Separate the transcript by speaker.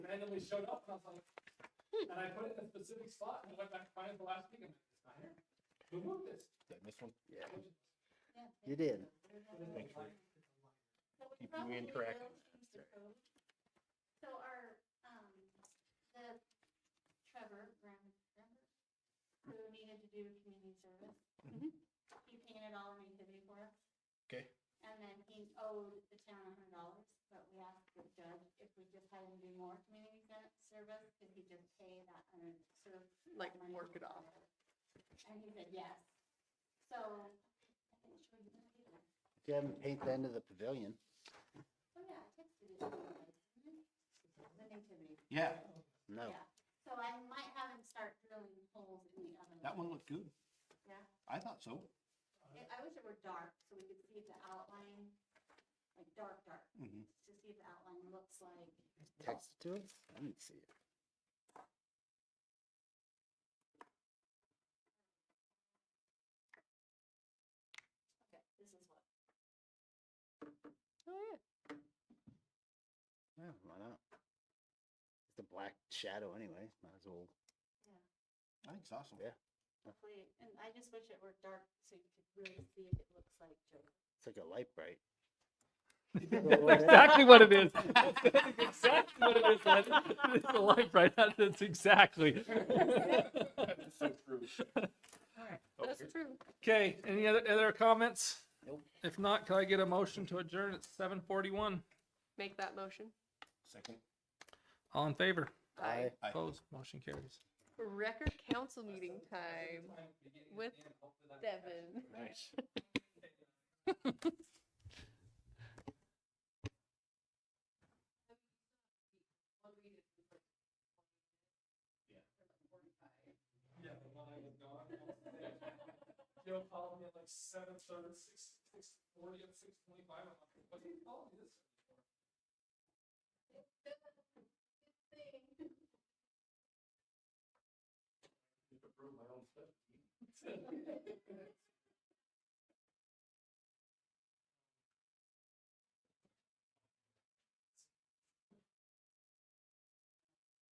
Speaker 1: just showed up and I was like, "Hmm." and I put it in a specific spot and I went back to find it the last week and it's not here. Who moved this?
Speaker 2: Did I miss one?
Speaker 3: Yeah,
Speaker 1: Which is-
Speaker 3: you did.
Speaker 2: Thanks, Rick.
Speaker 4: What we
Speaker 2: Keep you
Speaker 4: probably
Speaker 2: in track.
Speaker 4: will change the code. So our, um, the Trevor Graham, Graham, who needed to do community service, he painted all of Nativity for us.
Speaker 2: Mm-hmm. Okay.
Speaker 4: And then he owed the town a hundred dollars, but we asked the judge if we just had him do more community sen- service, could he just pay that hundred, sort of. that
Speaker 5: Like,
Speaker 4: money
Speaker 5: work it off.
Speaker 4: And he said yes. So, I think she would do that.
Speaker 3: If you haven't painted the end of the pavilion,
Speaker 4: Oh, yeah, I texted it. to you guys, didn't I? The nativity.
Speaker 2: Yeah,
Speaker 3: no.
Speaker 4: Yeah. So I might have him start drilling holes in the oven.
Speaker 2: that one looked good.
Speaker 4: Yeah.
Speaker 2: I thought so.
Speaker 4: I I wish it were dark so we could see the outline, like dark, dark,
Speaker 2: Mhm.
Speaker 4: to see if the outline looks like.
Speaker 3: Text it to us? I didn't see it.
Speaker 4: Okay, this is what.
Speaker 3: Yeah, why not? It's a black shadow anyway, might as well.
Speaker 2: I think it's awesome.
Speaker 3: Yeah.
Speaker 4: Hopefully, and I just wish it were dark so you could really see if it looks like Joker.
Speaker 3: It's like a light bright.
Speaker 6: That's exactly what it is. That's exactly what it is. Ed. It's the light right now. That's exactly.
Speaker 5: That's true.
Speaker 6: Okay, any other, other comments?
Speaker 3: Nope.
Speaker 6: If not, can I get a motion to adjourn at seven forty-one?
Speaker 5: Make that motion.
Speaker 2: Second.
Speaker 6: All in favor?
Speaker 3: I
Speaker 2: Aye.
Speaker 6: Opposed? Motion carries.
Speaker 5: Record council meeting
Speaker 1: That's the
Speaker 5: time
Speaker 1: time at the beginning and
Speaker 5: with
Speaker 1: the end. Hopefully that catches
Speaker 5: Devin.
Speaker 2: Nice.
Speaker 1: Yeah, the one I was gone. Joe called me at like seven thirty, six, six forty, and six twenty-five. I'm like, what did he call me this? for?" Did approve my own stuff.